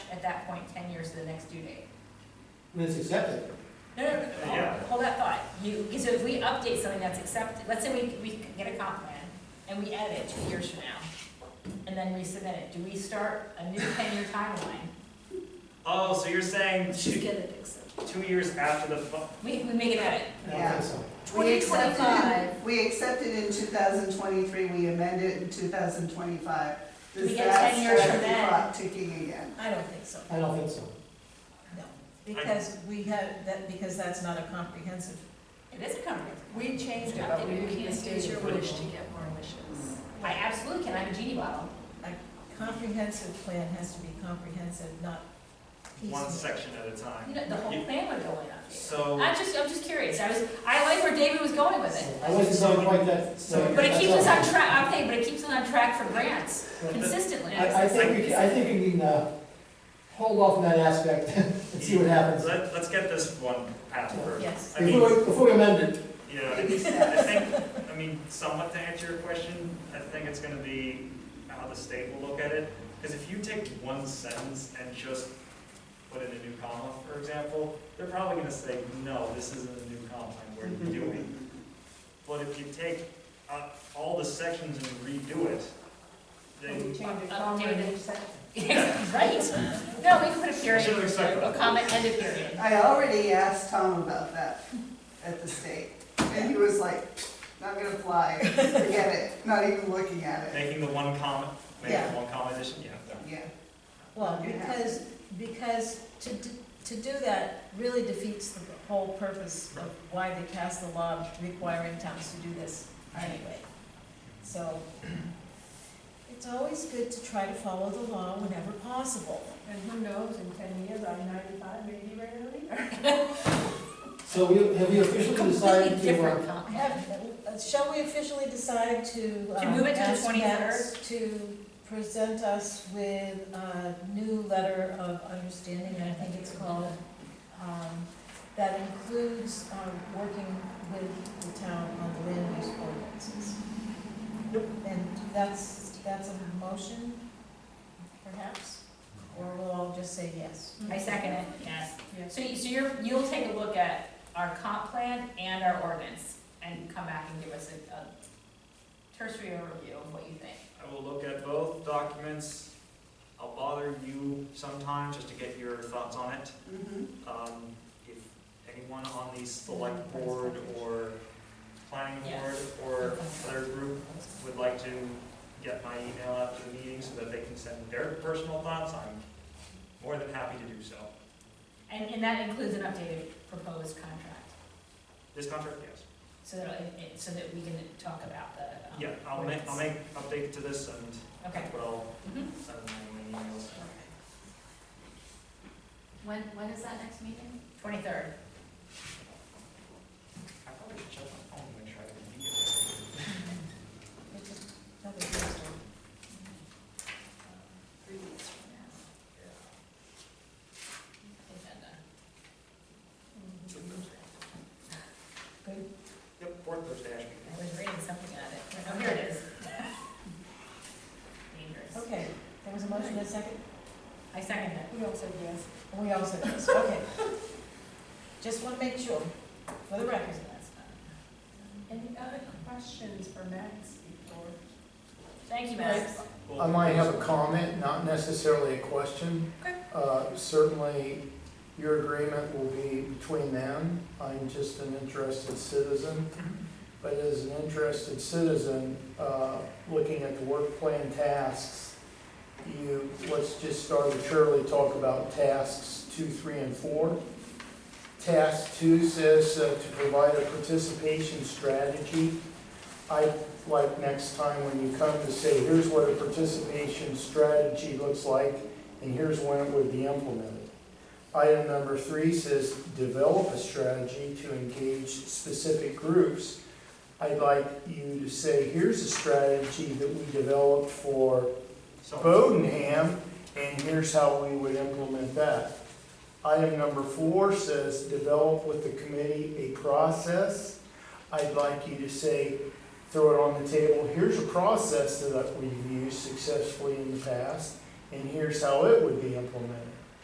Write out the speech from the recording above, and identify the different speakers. Speaker 1: at that point, ten years to the next due date.
Speaker 2: When it's accepted.
Speaker 1: No, no, no, no,
Speaker 3: Yeah.
Speaker 1: hold- hold that thought. You, so if we update something that's accepted, let's say we, we get a comp plan and we edit it two years from now and then resubmit it, do we start a new ten-year timeline?
Speaker 3: Oh, so you're saying
Speaker 1: Let's just
Speaker 3: two,
Speaker 1: get it accepted.
Speaker 3: two years after the, fu-
Speaker 1: We, we make an edit.
Speaker 2: I don't
Speaker 4: Yeah.
Speaker 2: think so.
Speaker 4: We accepted,
Speaker 1: 2025.
Speaker 4: it- we accepted in two thousand twenty-three, we amended it in two thousand twenty-five.
Speaker 1: We get 10 years from then.
Speaker 4: Does that start the clock ticking again?
Speaker 5: I don't think so,
Speaker 2: I don't think so.
Speaker 5: no, because we have, that, because that's not a comprehensive.
Speaker 1: It is a comprehensive.
Speaker 5: We changed
Speaker 1: it, but we didn't
Speaker 6: Use your wish to get more wishes.
Speaker 1: I absolutely can, I have a genie bottle.
Speaker 5: Comprehensive plan has to be comprehensive, not
Speaker 3: one
Speaker 5: piecemeal.
Speaker 3: section at a
Speaker 1: You
Speaker 3: time?
Speaker 1: know, the whole
Speaker 3: You-
Speaker 1: plan would go in update.
Speaker 3: So,
Speaker 1: I'm just, I'm just curious. I was, I like where David was going with it.
Speaker 2: I wasn't so quite that.
Speaker 3: So-
Speaker 1: But it keeps us on track, okay, but it keeps us on track for grants consistently.
Speaker 2: I, I think, we can- I think we can, uh, hold off on that aspect and see what happens.
Speaker 3: let, let's get this one path first.
Speaker 5: Yes.
Speaker 3: I mean,
Speaker 2: Before, we- before we amend it,
Speaker 3: you know, I think, I mean, somewhat to answer your question, I think it's gonna be how the state will look at it. Because if you take one sentence and just put in a new comma, for example, they're probably gonna say, no, this isn't a new comma, we're
Speaker 1: Mm-hmm.
Speaker 3: doing. But if you take uh, all the sections and redo it,
Speaker 5: We
Speaker 3: then
Speaker 5: changed it.
Speaker 1: Uh, David,
Speaker 5: comprehensive.
Speaker 1: Right? No, we can put a
Speaker 3: I should've
Speaker 1: period,
Speaker 3: expected
Speaker 1: a
Speaker 3: that.
Speaker 1: comma and a period.
Speaker 4: I already asked Tom about that at the state, and he was like, not gonna fly, forget it, not even looking at it.
Speaker 3: making the one comma, making
Speaker 5: Yeah.
Speaker 3: the one comma addition, yeah. that-
Speaker 4: Yeah,
Speaker 5: Well,
Speaker 4: Yeah.
Speaker 5: because, because to, d- to do that really defeats the whole purpose of why they passed the law requiring towns to do this anyway. So, it's always good to try to follow the law whenever possible.
Speaker 6: And who knows, in ten years, I'm ninety-five, maybe ready to leave.
Speaker 2: so we, have we officially
Speaker 1: Completely
Speaker 2: decided to, uh,
Speaker 1: different comp.
Speaker 5: I have, uh, shall we officially decide to?
Speaker 1: To
Speaker 5: um,
Speaker 1: move it to the
Speaker 5: ask
Speaker 1: 23rd?
Speaker 5: Max To present us with a new letter of understanding, I think it's called, um, that includes um, working with the town on the land use ordinances. And that's, that's a motion, perhaps, or we'll all just say yes.
Speaker 1: I second it, yes.
Speaker 5: Yes.
Speaker 1: So you, so you're, you'll take a look at our comp plan and our ordinance and come back and give us a, a tertiary overview of what you think.
Speaker 3: I will look at both documents. I'll bother you sometime just to get your thoughts on it.
Speaker 4: mhm.
Speaker 3: Um, If anyone on the select board or planning
Speaker 1: Yeah.
Speaker 3: board or other group would like to get my email after the meeting so that they can send their personal thoughts, I'm more than happy to do so.
Speaker 1: And, and that includes an updated proposed contract,
Speaker 3: This contract, yes.
Speaker 1: so that, it- it- so that we can talk about the. um,
Speaker 3: Yeah, I'll make, I'll
Speaker 1: ordinance.
Speaker 3: make update to this and
Speaker 1: Okay.
Speaker 3: what I'll
Speaker 1: Mhm.
Speaker 3: send in my emails.
Speaker 6: When, when is that next meeting?
Speaker 1: Twenty-third.
Speaker 3: I probably should check my phone and try to be it.
Speaker 5: It's another Thursday.
Speaker 6: Mm-hmm.
Speaker 1: Three weeks from now. Agenda.
Speaker 6: Mm-hmm.
Speaker 3: Yep, fourth Thursday, Ashby.
Speaker 1: I was reading something on it. Oh, here it is. Dangerous.
Speaker 5: Okay, there was a motion, a second?
Speaker 1: I second it.
Speaker 6: We all said yes.
Speaker 5: We also does, okay. Just want to make sure, for the record.
Speaker 6: Any other questions for Max before?
Speaker 1: Thank you, Max.
Speaker 3: Well,
Speaker 7: I might have a comment, not necessarily a question.
Speaker 1: Okay.
Speaker 7: Uh, Certainly, your agreement will be between them. I'm just an interested citizen.
Speaker 1: Mm-hmm.
Speaker 7: But as an interested citizen, uh, looking at the work plan tasks, you, let's just arbitrarily talk about tasks two, three, and four. Task two says uh, to provide a participation strategy. I like next time when you come to say, here's what a participation strategy looks like, and here's when it would be implemented. Item number three says, develop a strategy to engage specific groups. I'd like you to say, here's a strategy that we developed for
Speaker 3: So-
Speaker 7: Bodenham, and here's how we would implement that. Item number four says, develop with the committee a process. I'd like you to say, throw it on the table, here's a process that we've used successfully in the past, and here's how it would be implemented.